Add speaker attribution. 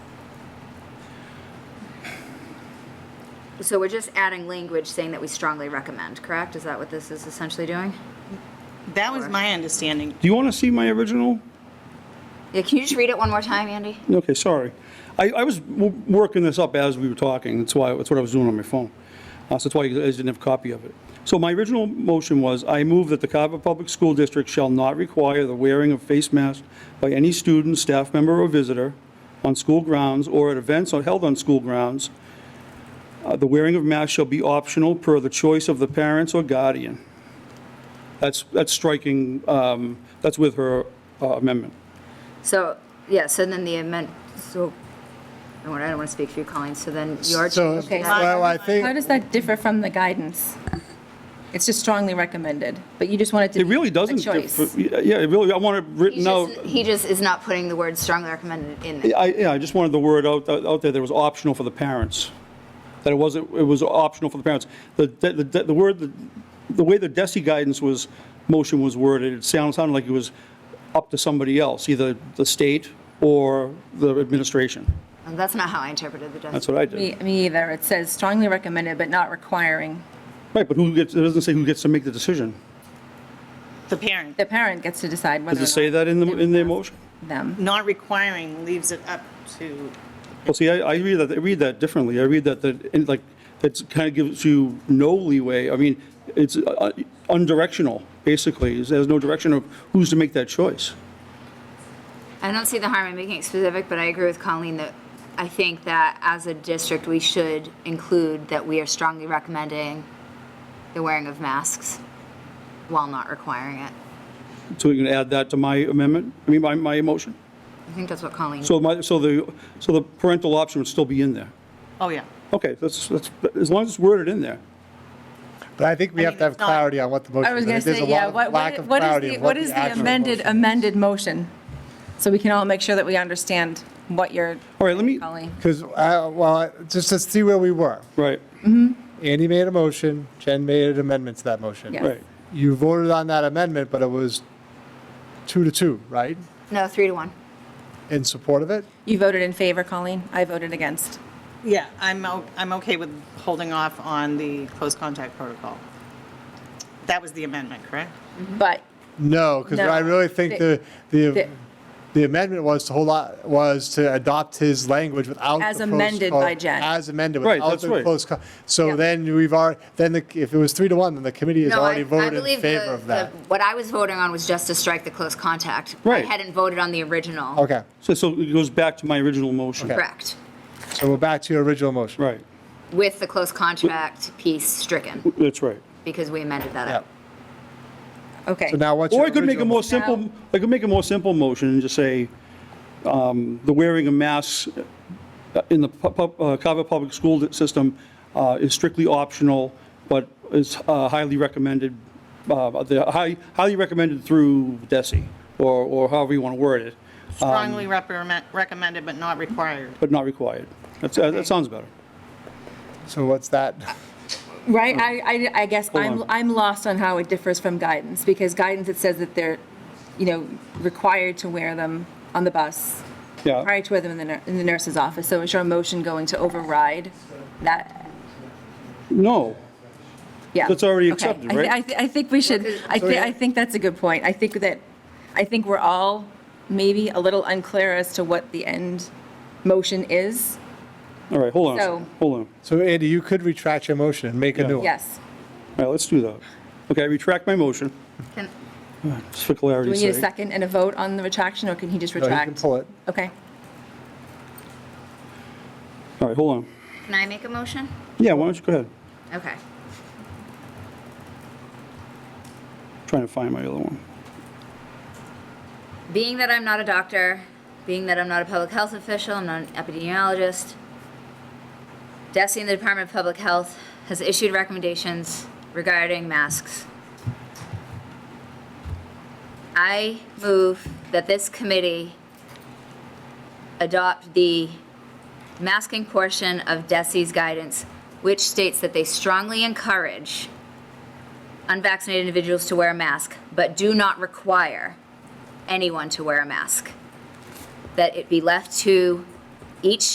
Speaker 1: So we're just adding language saying that we strongly recommend, correct? Is that what this is essentially doing?
Speaker 2: That was my understanding.
Speaker 3: Do you want to see my original?
Speaker 1: Yeah, can you just read it one more time, Andy?
Speaker 3: Okay, sorry. I, I was w- working this up as we were talking, that's why, that's what I was doing on my phone. Uh, So that's why I didn't have a copy of it. So my original motion was, I move that the Carver Public School District shall not require the wearing of face masks by any student, staff member, or visitor on school grounds or at events or held on school grounds. Uh, The wearing of masks shall be optional per the choice of the parents or guardian. That's, that's striking, um, that's with her uh, amendment.
Speaker 1: So, yeah, so then the amend, so, I don't want, I don't want to speak for you, Colleen, so then you're.
Speaker 4: So,
Speaker 1: okay,
Speaker 4: well, I
Speaker 5: How
Speaker 4: think,
Speaker 5: does that differ from the guidance? It's just strongly recommended, but you just want it to
Speaker 3: It
Speaker 5: be
Speaker 3: really
Speaker 5: a
Speaker 3: doesn't.
Speaker 5: choice.
Speaker 3: differ- Yeah, it really, I want it
Speaker 1: He
Speaker 3: written out.
Speaker 1: just, he just is not putting the word strongly recommended in there.
Speaker 3: I, yeah, I just wanted the word out, out there that it was optional for the parents. That it wasn't, it was optional for the parents. The, the, the- the word, the- the way the DESI guidance was, motion was worded, it sounded, sounded like it was up to somebody else, either the state or the administration.
Speaker 1: And that's not how I interpreted the
Speaker 3: That's
Speaker 1: document.
Speaker 3: what I
Speaker 5: Me
Speaker 3: did.
Speaker 5: me either. It says strongly recommended, but not requiring.
Speaker 3: Right, but who gets, it doesn't say who gets to make the decision.
Speaker 2: The parent,
Speaker 5: The parent gets to decide whether
Speaker 3: Does
Speaker 5: or
Speaker 3: it say
Speaker 5: not
Speaker 3: that in the, in the motion?
Speaker 5: them.
Speaker 2: not requiring leaves it up to,
Speaker 3: Well, see, I, I read that, I read that differently. I read that, that, and like, that's kind of gives you no leeway. I mean, it's uh, undirectional, basically. There's no direction of who's to make that choice.
Speaker 1: I don't see the harm in making it specific, but I agree with Colleen that I think that as a district, we should include that we are strongly recommending the wearing of masks while not requiring it.
Speaker 3: So you can add that to my amendment, I mean, my, my motion.
Speaker 1: I think that's what Colleen.
Speaker 3: So my, so the, so the parental option would still be in there.
Speaker 2: oh, yeah.
Speaker 3: Okay, that's, that's, as long as it's worded in there.
Speaker 4: but I think we
Speaker 2: I
Speaker 4: have
Speaker 2: mean,
Speaker 4: to have
Speaker 2: it's not-
Speaker 4: clarity on what the motion is.
Speaker 5: I was going to
Speaker 4: There's a
Speaker 5: say, yeah,
Speaker 4: lot of
Speaker 5: what
Speaker 4: lack of
Speaker 5: what
Speaker 4: clarity
Speaker 5: is the,
Speaker 4: of
Speaker 5: what
Speaker 4: the
Speaker 5: is the
Speaker 4: actual
Speaker 5: amended,
Speaker 4: motion is.
Speaker 5: amended motion? So we can all make sure that we understand what you're
Speaker 3: All right, let me,
Speaker 5: calling.
Speaker 4: Because, uh, well, I- just to see where we were.
Speaker 3: right,
Speaker 4: Andy made a motion, Jen made an amendment to that motion.
Speaker 5: Yeah.
Speaker 3: right.
Speaker 4: You voted on that amendment, but it was two to two, right?
Speaker 1: No, three to one.
Speaker 4: In support of it?
Speaker 5: You voted in favor, Colleen. I voted against.
Speaker 2: Yeah, I'm, o- I'm okay with holding off on the close contact protocol. That was the amendment, correct?
Speaker 5: But
Speaker 4: No, because I
Speaker 5: No.
Speaker 4: really think the, the,
Speaker 5: The-
Speaker 4: the amendment was to hold on, was to adopt his language without.
Speaker 5: As
Speaker 4: the close
Speaker 5: amended
Speaker 4: call-
Speaker 5: by Jen.
Speaker 4: As amended.
Speaker 3: Right,
Speaker 4: without
Speaker 3: that's
Speaker 4: the
Speaker 3: right.
Speaker 4: close call. So
Speaker 5: Yeah.
Speaker 4: then we've already, then the- if it was three to one, then the committee has
Speaker 1: No, I-
Speaker 4: already
Speaker 1: I
Speaker 4: voted in
Speaker 1: believe the-
Speaker 4: favor of that.
Speaker 1: the- What I was voting on was just to strike the close contact.
Speaker 3: Right.
Speaker 1: I hadn't voted on the original.
Speaker 4: Okay,
Speaker 3: So, so it goes back to my original motion.
Speaker 4: Okay.
Speaker 1: Correct.
Speaker 4: so we're back to your original motion.
Speaker 3: Right,
Speaker 1: With the close contract piece stricken,
Speaker 3: that's right.
Speaker 1: because we amended that
Speaker 4: Yeah.
Speaker 1: up.
Speaker 5: okay.
Speaker 4: So now what's your
Speaker 3: Or I could make a
Speaker 4: original
Speaker 3: more
Speaker 4: motion?
Speaker 3: simple, I could make a more simple motion and just say, um, the wearing of masks in the pu- pu- uh, Carver Public School System uh, is strictly optional, but is uh, highly recommended, uh, the high- highly recommended through DESI, or or however you want to word it,
Speaker 2: Strongly recommend- recommended, but not required.
Speaker 3: but not required. That's- uh, That sounds better.
Speaker 4: So what's that?
Speaker 5: Right, I, I, I guess I'm,
Speaker 3: on.
Speaker 5: I'm lost on how it differs from guidance, because guidance, it says that they're, you know, required to wear them on the bus,
Speaker 3: Yeah,
Speaker 5: prior to wear them in the, nur- in the nurse's office, so is your motion going to override that?
Speaker 3: no,
Speaker 5: Yeah.
Speaker 3: That's already
Speaker 5: Okay.
Speaker 3: accepted,
Speaker 5: I thi-
Speaker 3: right?
Speaker 5: I, thi- I think we should, I think, I think that's a good point, I think that, I think we're all maybe a little unclear as to what the end motion is,
Speaker 3: all right, hold on, a
Speaker 5: So-
Speaker 3: second. hold on.
Speaker 4: So Andy, you could retract your motion and make a new one.
Speaker 5: yes.
Speaker 3: All right, let's do that. Okay, I retract my motion,
Speaker 1: Can-
Speaker 3: just for
Speaker 5: Do we
Speaker 3: clarity's
Speaker 5: need a
Speaker 3: sake.
Speaker 5: second and a vote on the retraction, or can he just
Speaker 4: No,
Speaker 5: retract?
Speaker 4: you can pull it.
Speaker 5: Okay,
Speaker 3: All right, hold on.
Speaker 1: Can I make a motion?
Speaker 3: Yeah, why don't you go ahead?
Speaker 1: Okay.
Speaker 3: Trying to find my other one.
Speaker 1: Being that I'm not a doctor, being that I'm not a public health official, I'm not an epidemiologist, DESI and the Department of Public Health has issued recommendations regarding masks. I move that this committee adopt the masking portion of DESI's guidance, which states that they strongly encourage unvaccinated individuals to wear a mask, but do not require anyone to wear a mask. That it be left to each